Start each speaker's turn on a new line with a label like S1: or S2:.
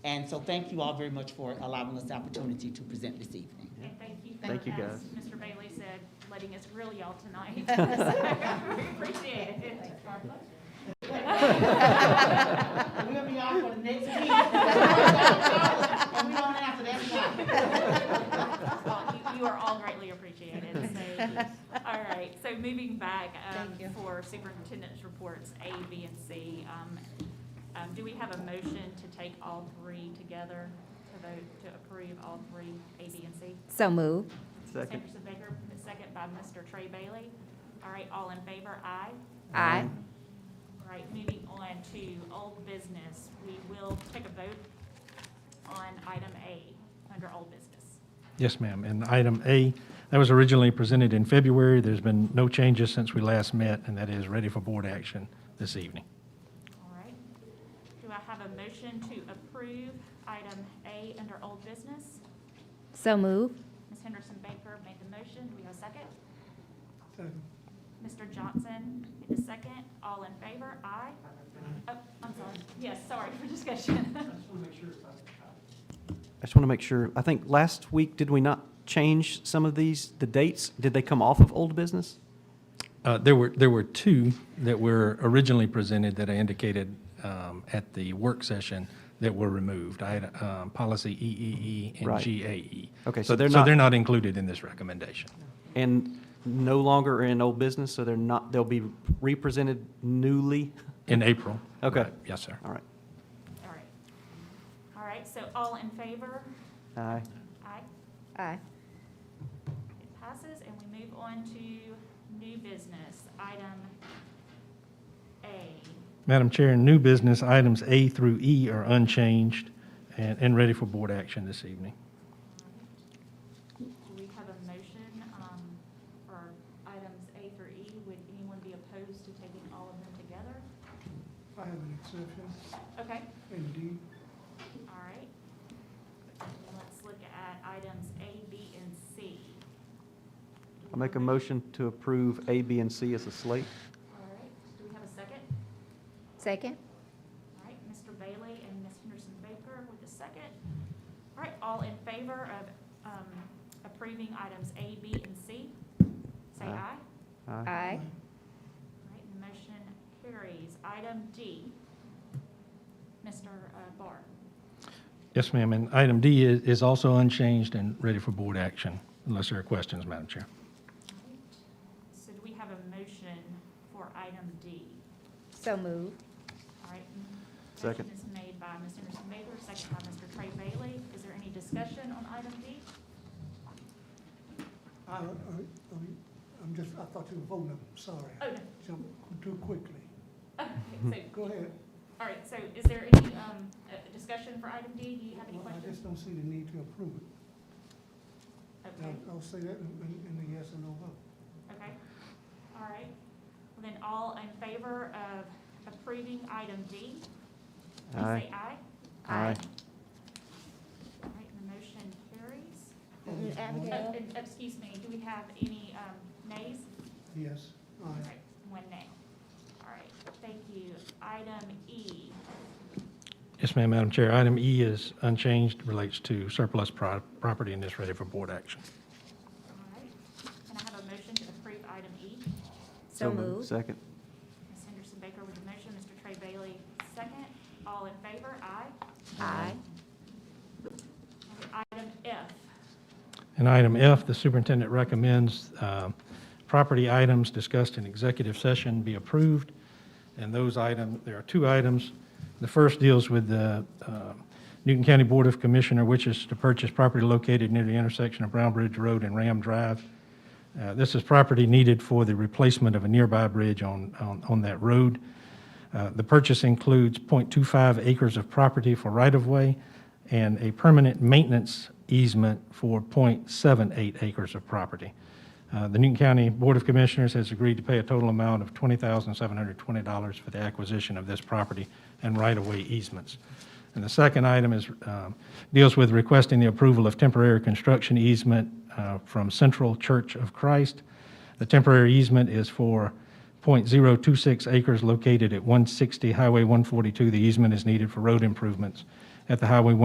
S1: And so thank you all very much for allowing us the opportunity to present this evening.
S2: And thank you.
S3: Thank you,
S2: as
S3: guys.
S2: Mr. Bailey said, letting us grill y'all tonight. So, We appreciate it.
S1: We'll be on for the next meeting. And we don't answer, that's
S2: Well, you- You are all greatly appreciated. So, All right, so moving back um,
S4: Thank you.
S2: for superintendent's reports, A, B, and C. um, um, Do we have a motion to take all three together, to vote, to approve all three, A, B, and C?
S5: So move.
S3: Second.
S2: Sanderson Baker, second by Mr. Trey Bailey. All right, all in favor, aye?
S5: Aye.
S2: All right, moving on to old business, we will take a vote on item A under old business.
S6: Yes, ma'am. And item A, that was originally presented in February. There's been no changes since we last met, and that is ready for board action this evening.
S2: All right. Do I have a motion to approve item A under old business?
S5: So move.
S2: Ms. Henderson Baker made the motion. Do we have a second? Second. Mr. Johnson made the second. All in favor? Aye. Oh, I'm sorry. Yes, sorry for discussion.
S3: I just want to make sure, I think last week, did we not change some of these, the dates? Did they come off of old business?
S6: Uh, There were, there were two that were originally presented that I indicated um, at the work session that were removed. I had um, policy EEE and
S3: Right.
S6: GAE.
S3: Okay,
S6: So they're not, they're not included in this recommendation.
S3: And no longer are in old business, so they're not, they'll be represented newly?
S6: In April.
S3: Okay.
S6: Right. Yes, sir.
S3: All right.
S2: All right. All right, so all in favor?
S3: Aye.
S2: Aye.
S5: Aye.
S2: It passes, and we move on to new business, item A.
S6: Madam Chair, new business items A through E are unchanged and, and ready for board action this evening.
S2: Do we have a motion um, for items A through E? Would anyone be opposed to taking all of them together?
S7: I have an exception,
S2: Okay,
S7: indeed.
S2: all right. Let's look at items A, B, and C.
S3: I'll make a motion to approve A, B, and C as a slate.
S2: All right, do we have a second?
S5: Second.
S2: All right, Mr. Bailey and Ms. Henderson Baker with a second. All right, all in favor of um, approving items A, B, and C? Say
S3: Aye.
S2: aye.
S3: Aye.
S5: Aye.
S2: All right, the motion carries. Item D, Mr. uh, Barr.
S6: Yes, ma'am. And item D is, is also unchanged and ready for board action, unless there are questions, Madam Chair.
S2: All right. So do we have a motion for item D?
S5: So move.
S2: All right.
S3: Second.
S2: Motion is made by Ms. Anderson Baker, second by Mr. Trey Bailey. Is there any discussion on item D?
S7: I, I, I- I'm just, I thought you were voting, I'm sorry.
S2: Oh,
S7: Jump too quickly.
S2: no. Okay, so,
S7: Go ahead.
S2: all right, so is there any um, uh, discussion for item D? Do you have any
S7: Well, I
S2: questions?
S7: just don't see the need to approve it.
S2: Okay.
S7: I'll- I'll say that in, in- in the yes and no vote.
S2: Okay, all right. Well, Then all in favor of approving item D, please
S3: Aye.
S2: say aye.
S3: Aye.
S2: All right, and the motion carries.
S5: Mm, Abigail.
S2: Oh, and Excuse me, do we have any um, nays?
S7: Yes,
S2: All
S7: aye.
S2: right, one nay. All right, thank you. Item E,
S6: Yes, ma'am, Madam Chair. Item E is unchanged, relates to surplus pro- property and is ready for board action.
S2: all right. Can I have a motion to approve item E?
S5: So move.
S3: Second.
S2: Ms. Henderson Baker with the motion, Mr. Trey Bailey, second. All in favor, aye.
S5: Aye.
S2: Item F,
S6: And item F, the superintendent recommends um, property items discussed in executive session be approved. And those items, there are two items. The first deals with the uh, Newton County Board of Commissioner, which is to purchase property located near the intersection of Brown Bridge Road and Ram Drive. Uh, This is property needed for the replacement of a nearby bridge on, on, on that road. Uh, The purchase includes .25 acres of property for right-of-way and a permanent maintenance easement for .78 acres of property. Uh, The Newton County Board of Commissioners has agreed to pay a total amount of $20,720 for the acquisition of this property and right-of-way easements. And the second item is, um, deals with requesting the approval of temporary construction easement uh, from Central Church of Christ. The temporary easement is for .026 acres located at 160 Highway 142. The easement is needed for road improvements at the Highway